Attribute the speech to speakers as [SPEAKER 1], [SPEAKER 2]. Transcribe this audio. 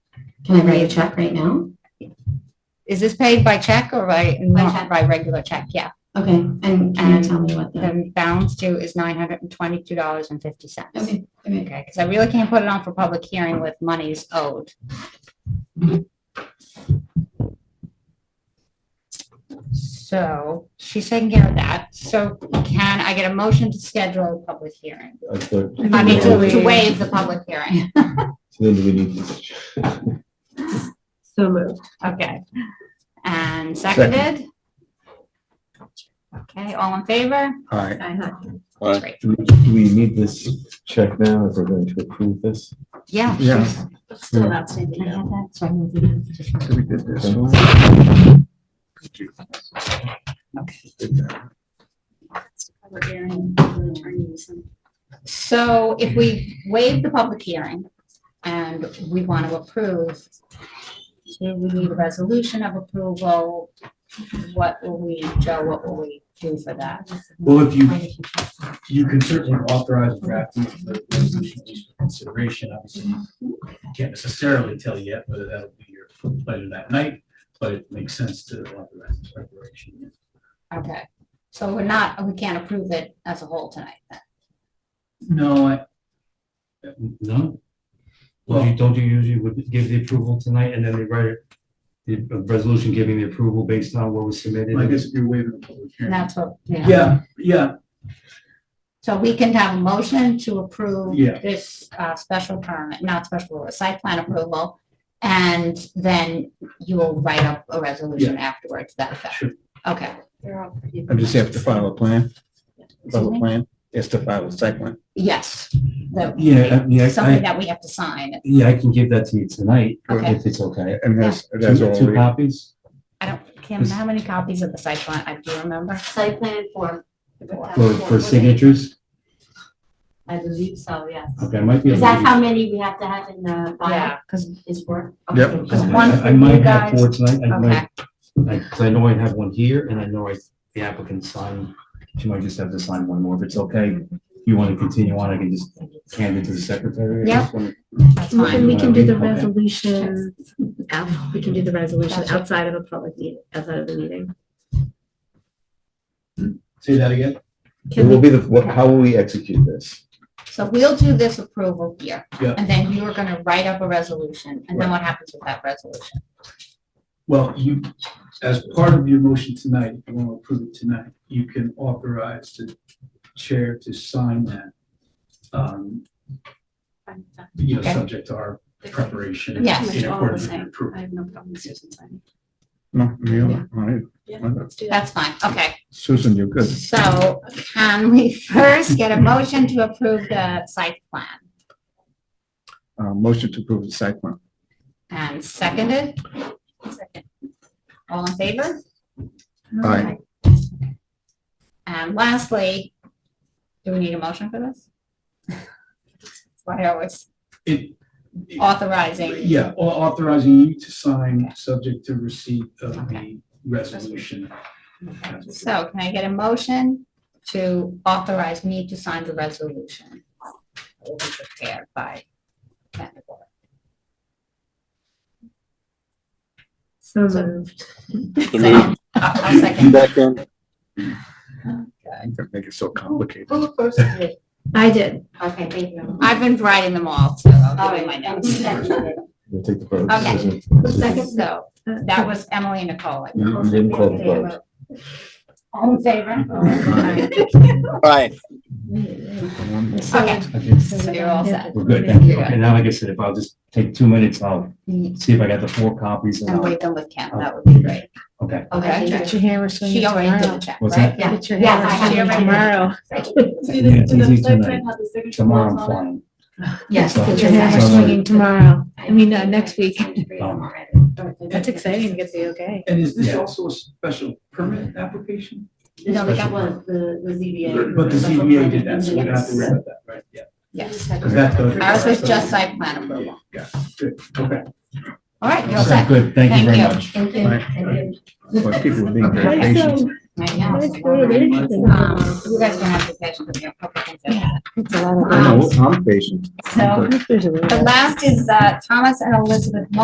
[SPEAKER 1] Can I write a check right now?
[SPEAKER 2] Is this paid by check or by,
[SPEAKER 1] check. Mm-hmm.
[SPEAKER 2] by regular check? Yeah.
[SPEAKER 1] Okay, and can you tell me what the,
[SPEAKER 2] The balance due is nine hundred and twenty-two dollars and fifty cents.
[SPEAKER 1] okay, okay.
[SPEAKER 2] Okay, because I really can't put it on for public hearing with monies owed. So she's taking care of that. So can I get a motion to schedule a public hearing?
[SPEAKER 3] I thought.
[SPEAKER 2] I mean, to to
[SPEAKER 4] Waive.
[SPEAKER 2] waive the public hearing.
[SPEAKER 3] So then do we need to?
[SPEAKER 4] So moved.
[SPEAKER 2] Okay. And seconded? Okay, all in favor?
[SPEAKER 5] Aye.
[SPEAKER 2] Great.
[SPEAKER 3] Do we- do we need this check now if we're going to approve this?
[SPEAKER 2] Yeah.
[SPEAKER 5] Yeah.
[SPEAKER 2] she's-
[SPEAKER 4] Still outstanding.
[SPEAKER 2] I have that, so I moved it up.
[SPEAKER 5] So we did this one. Did that.
[SPEAKER 2] So if we waive the public hearing and we want to approve, do we need a resolution of approval? What will we, Joe, what will we do for that?
[SPEAKER 6] Well, if you, you can certainly authorize a draft of the resolution for consideration, obviously. you Can't necessarily tell yet whether that'll be your pleasure that night, but it makes sense to authorize its preparation.
[SPEAKER 2] Okay, so we're not, we can't approve it as a whole tonight then?
[SPEAKER 6] No, I,
[SPEAKER 7] No? Would you, don't you usually would give the approval tonight and then they write it- the resolution giving the approval based on what was submitted?
[SPEAKER 6] I guess if you're waiving the public
[SPEAKER 2] And
[SPEAKER 6] hearing.
[SPEAKER 2] that's what, yeah.
[SPEAKER 6] Yeah, yeah,
[SPEAKER 2] So we can have a motion to approve
[SPEAKER 6] Yeah.
[SPEAKER 2] this uh, special permit, not special, a site plan approval. And then you will write up a resolution afterwards to that effect.
[SPEAKER 6] sure.
[SPEAKER 2] Okay.
[SPEAKER 5] I just have to file a plan,
[SPEAKER 2] Excuse
[SPEAKER 5] file
[SPEAKER 2] me?
[SPEAKER 5] a plan, is to file a site plan.
[SPEAKER 2] Yes. that-
[SPEAKER 7] Yeah, I mean, I-
[SPEAKER 2] Something
[SPEAKER 7] I-
[SPEAKER 2] that we have to sign.
[SPEAKER 7] Yeah, I can give that to you tonight,
[SPEAKER 2] Okay.
[SPEAKER 7] if it's okay.
[SPEAKER 5] And that's, that's
[SPEAKER 7] Two
[SPEAKER 5] all.
[SPEAKER 7] two
[SPEAKER 5] we-
[SPEAKER 7] copies?
[SPEAKER 2] I don't, Kim, how many copies of the site plan? I do remember.
[SPEAKER 4] Site plan form.
[SPEAKER 7] For, for signatures?
[SPEAKER 4] I believe so, yes.
[SPEAKER 7] Okay, I might be.
[SPEAKER 4] Is
[SPEAKER 7] able
[SPEAKER 4] that
[SPEAKER 7] to
[SPEAKER 4] how many we have to have in the file?
[SPEAKER 2] because.
[SPEAKER 4] Is four?
[SPEAKER 5] Yep.
[SPEAKER 4] Okay.
[SPEAKER 7] do-
[SPEAKER 2] one
[SPEAKER 7] I-
[SPEAKER 2] for
[SPEAKER 7] I
[SPEAKER 2] you
[SPEAKER 7] might have
[SPEAKER 2] guys.
[SPEAKER 7] four tonight. I
[SPEAKER 2] Okay,
[SPEAKER 7] might, I, 'cause I know I have one here and I know I, the applicant signed. She might just have to sign one more if it's okay. You want to continue on, I can just hand it to the secretary. I
[SPEAKER 2] Yeah.
[SPEAKER 7] just wanna-
[SPEAKER 2] that's
[SPEAKER 4] Well,
[SPEAKER 2] fine.
[SPEAKER 4] then we can do the
[SPEAKER 7] Okay.
[SPEAKER 4] resolution, out- we can do the resolution
[SPEAKER 2] Gotcha.
[SPEAKER 4] outside of a public meeting, outside of the meeting.
[SPEAKER 6] Say that again.
[SPEAKER 4] Can
[SPEAKER 3] It
[SPEAKER 4] we
[SPEAKER 3] will be the, what- how will we execute this?
[SPEAKER 2] So we'll do this approval here.
[SPEAKER 6] Yeah.
[SPEAKER 2] And then you are going to write up a resolution. And then what happens with that resolution?
[SPEAKER 6] Well, you, as part of your motion tonight, if you want to approve it tonight, you can authorize the chair to sign that. um, You know,
[SPEAKER 2] Okay.
[SPEAKER 6] subject to our preparation.
[SPEAKER 2] Yes.
[SPEAKER 6] In accordance with your approval.
[SPEAKER 5] No, you don't. All right.
[SPEAKER 2] That's fine. Okay.
[SPEAKER 5] Susan, you're good.
[SPEAKER 2] So can we first get a motion to approve the site plan?
[SPEAKER 5] Uh, motion to approve the site plan.
[SPEAKER 2] And seconded? All in favor?
[SPEAKER 5] Aye.
[SPEAKER 2] And lastly, do we need a motion for this? Why are we
[SPEAKER 6] It- it-
[SPEAKER 2] authorizing?
[SPEAKER 6] Yeah, au- authorizing you to sign, subject to receipt of the resolution.
[SPEAKER 2] So can I get a motion to authorize me to sign the resolution? that Will be prepared by. Kendra Gore?
[SPEAKER 4] So moved.
[SPEAKER 2] Second. I'll I'll second. Okay.
[SPEAKER 5] Don't Make it so complicated.
[SPEAKER 4] Who first did? I did. Okay, thank you.
[SPEAKER 2] I've been writing them all, so I'll
[SPEAKER 4] All
[SPEAKER 2] give you
[SPEAKER 4] right,
[SPEAKER 2] my
[SPEAKER 4] and
[SPEAKER 2] notes.
[SPEAKER 4] seconded.
[SPEAKER 3] We'll take the vote.
[SPEAKER 2] Okay.
[SPEAKER 3] Susan.
[SPEAKER 2] So
[SPEAKER 4] Uh,
[SPEAKER 2] that was Emily Nicole.
[SPEAKER 3] You you didn't call the vote.
[SPEAKER 2] All in favor? Okay.
[SPEAKER 7] I can-
[SPEAKER 2] So you're all set.
[SPEAKER 7] We're good, thank you.
[SPEAKER 2] Yeah.
[SPEAKER 7] Okay, now, like I said, if I'll just take two minutes, I'll
[SPEAKER 2] And
[SPEAKER 7] see if I got the four copies. and I'll-
[SPEAKER 2] Mm. wait them with Kim, that would be great.
[SPEAKER 7] Okay.
[SPEAKER 2] Okay.
[SPEAKER 4] your hammer
[SPEAKER 2] She already did the check,
[SPEAKER 7] What's
[SPEAKER 2] right?
[SPEAKER 4] Get your
[SPEAKER 2] Yeah,
[SPEAKER 4] hammer
[SPEAKER 2] I have it.
[SPEAKER 4] swinging tomorrow.
[SPEAKER 7] Yeah, it's easy tonight. Tomorrow I'm flying.
[SPEAKER 1] Yes.
[SPEAKER 7] So-
[SPEAKER 4] Get your hammer swinging tomorrow. I mean, uh, next week.
[SPEAKER 7] Um,
[SPEAKER 4] That's exciting to get the okay.
[SPEAKER 6] And is this
[SPEAKER 7] Yeah.
[SPEAKER 6] also a special permit application?
[SPEAKER 4] No,
[SPEAKER 7] but that
[SPEAKER 4] was the, the ZBA.
[SPEAKER 6] But the ZBA did that, so we don't have to worry about that, right? Yeah.
[SPEAKER 2] Yes.
[SPEAKER 6] Because that's the-
[SPEAKER 2] Ours was just site plan approval.
[SPEAKER 6] Yeah, good, okay.
[SPEAKER 2] All right, you're all
[SPEAKER 7] so
[SPEAKER 2] set.
[SPEAKER 7] Good, thank you very much.
[SPEAKER 2] Thank you.
[SPEAKER 5] Well, people are being very
[SPEAKER 4] Why
[SPEAKER 5] patient.
[SPEAKER 4] so- why
[SPEAKER 2] I know.
[SPEAKER 4] so interesting?
[SPEAKER 2] Um, You guys don't have to catch with me. I'll probably get that.
[SPEAKER 4] It's a lot of.
[SPEAKER 2] um,
[SPEAKER 5] I know, I'm patient.
[SPEAKER 2] So
[SPEAKER 4] There's a lot of-
[SPEAKER 2] the last is uh, Thomas and Elizabeth Mo-